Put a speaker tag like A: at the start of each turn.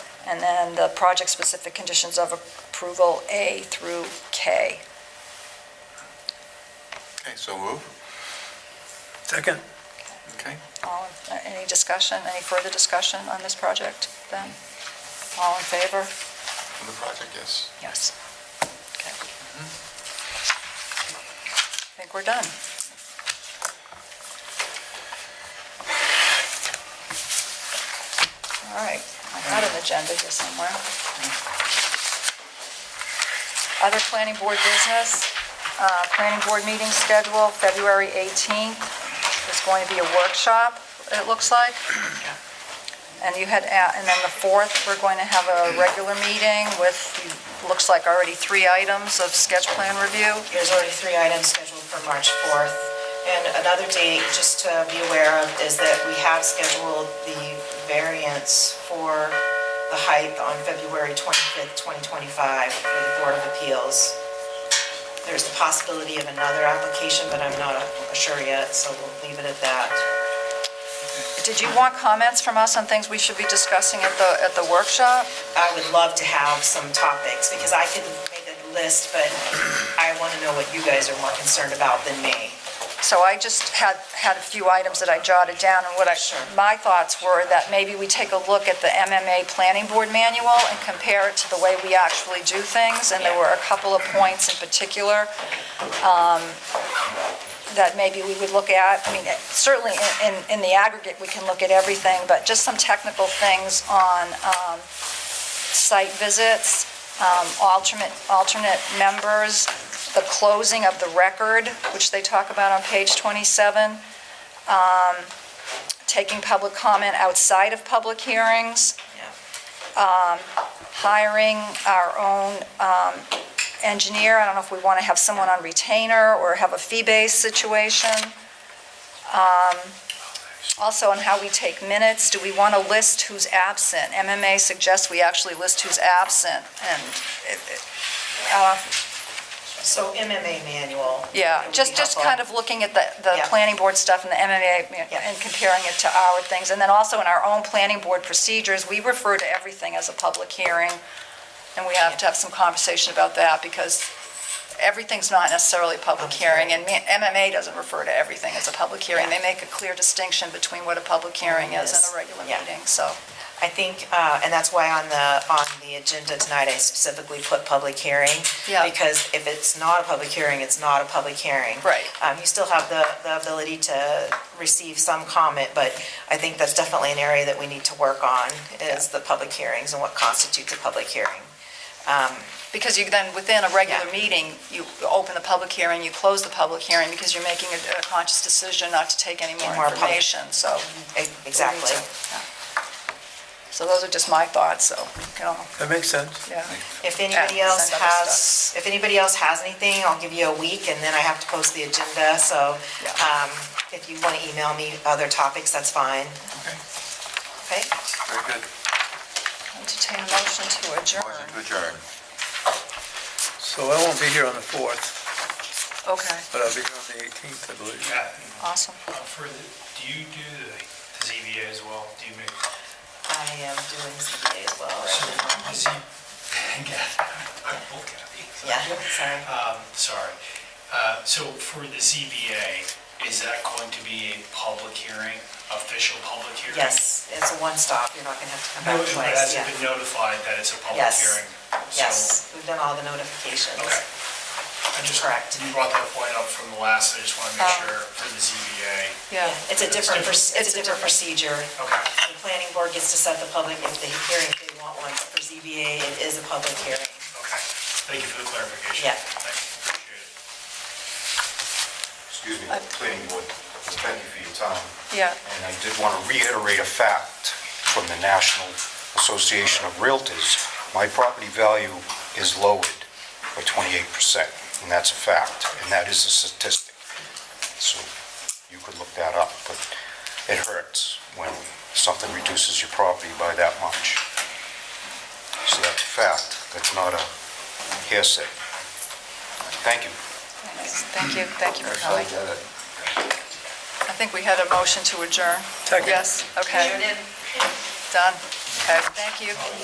A: and then the project-specific conditions of approval A through K.
B: Okay, so move.
C: Second.
B: Okay.
A: All, in- uh, any discussion, any further discussion on this project then? All in favor?
B: On the project, yes.
A: Yes. Okay. I Mm-hmm. think we're done. All right, I got an agenda here somewhere. Other planning board business, uh, planning board meeting schedule, February 18th. It's going to be a workshop, it looks like. And you had, a- and then the 4th, we're going to have a regular meeting with, looks like already three items of sketch plan review.
D: There's already three items scheduled for March 4th. And another date, just to be aware of, is that we have scheduled the variance for the height on February 25th, 2025, for the Board of Appeals. There's the possibility of another application, but I'm not sure yet, so we'll leave it at that.
A: Did you want comments from us on things we should be discussing at the, at the workshop?
D: I would love to have some topics, because I could make a list, but I want to know what you guys are more concerned about than me.
A: So I just had, had a few items that I jotted down, and what I,
D: Sure.
A: my thoughts were that maybe we take a look at the MMA Planning Board Manual and compare it to the way we actually do things, and there were a couple of points in particular um, that maybe we would look at. I mean, it- certainly in- in, in the aggregate, we can look at everything, but just some technical things on um, site visits, um, alternate, alternate members, the closing of the record, which they talk about on page 27, um, taking public comment outside of public hearings,
D: Yeah.
A: um, hiring our own um, engineer, I don't know if we want to have someone on retainer or have a fee-based situation. Um, Also on how we take minutes, do we want to list who's absent? MMA suggests we actually list who's absent, and, it- it- uh,
D: So MMA manual.
A: yeah,
D: would
A: just,
D: be
A: just
D: helpful.
A: kind of looking at the, the
D: Yeah.
A: planning board stuff and the MMA
D: Yeah.
A: and comparing it to our things. And then also in our own planning board procedures, we refer to everything as a public hearing. And we have to have some conversation about that because everything's not necessarily a public hearing. And me- MMA doesn't refer to everything as a public hearing. They make a clear distinction between what a public hearing is and a regular
D: Yeah.
A: meeting, so.
D: I think, uh, and that's why on the, on the agenda tonight, I specifically put public hearing.
A: Yeah.
D: Because if it's not a public hearing, it's not a public hearing.
A: Right.
D: Um, You still have the, the ability to receive some comment, but I think that's definitely an area that we need to work on, is the public hearings and what constitutes a public hearing.
A: Because you then, within a regular
D: Yeah.
A: meeting, you open the public hearing, you close the public hearing because you're making a a conscious decision not to take any
D: And
A: more
D: more public-
A: information, so.
D: E- Exactly.
A: So those are just my thoughts, so, you can all
C: That makes sense.
A: yeah.
D: If anybody
A: Yeah,
D: else
A: send other
D: has, if anybody else has anything, I'll give you a week, and then I have to post the agenda, so
A: Yeah.
D: um, if you want to email me other topics, that's fine.
B: Okay,
D: Okay?
B: very good.
A: Entertain a motion to adjourn.
B: Motion to adjourn.
C: So I won't be here on the 4th,
A: Okay,
C: but I'll be here on the 18th, I believe.
E: Yeah,
A: awesome.
E: uh, for the, do you do the the ZBA as well? Do you make,
D: I am doing ZBA as well.
E: so,
D: right?
E: Z, I will, Kathy.
D: Yeah, sorry.
E: Um, sorry. Uh, so for the ZBA, is that going to be a public hearing, official public hearing?
D: Yes, it's a one-stop, you're not going to have to come
E: No,
D: back
E: it
D: twice,
E: hasn't
D: yeah.
E: been notified that it's a public
D: Yes.
E: hearing? so-
D: Yes, we've done all the notifications.
E: Okay. I just,
D: Correct. Uh.
E: you brought that point up from the last, I just want to make
A: Oh.
E: sure for the ZBA.
A: Yeah,
D: It's a different, proc-
A: It's a
D: it's a different procedure.
E: Okay.
D: The planning board gets to set the public if they hearing, if they want one, but for ZBA, it is a public hearing.
E: Okay, thank you for the clarification.
D: Yeah.
E: Thank you, appreciate it.
F: Excuse me, planning board, thank you for your time.
A: yeah,
F: And I did want to reiterate a fact from the National Association of Realtors. My property value is lowered by 28%, and that's a fact, and that is a statistic. So you could look that up, but it hurts when something reduces your property by that much. So that's a fact, that's not a hearsay. Thank you.
A: thanks. thank you, thank you for coming. I think we had a motion to adjourn.
C: Second.
A: Yes, okay. Done, okay, thank you.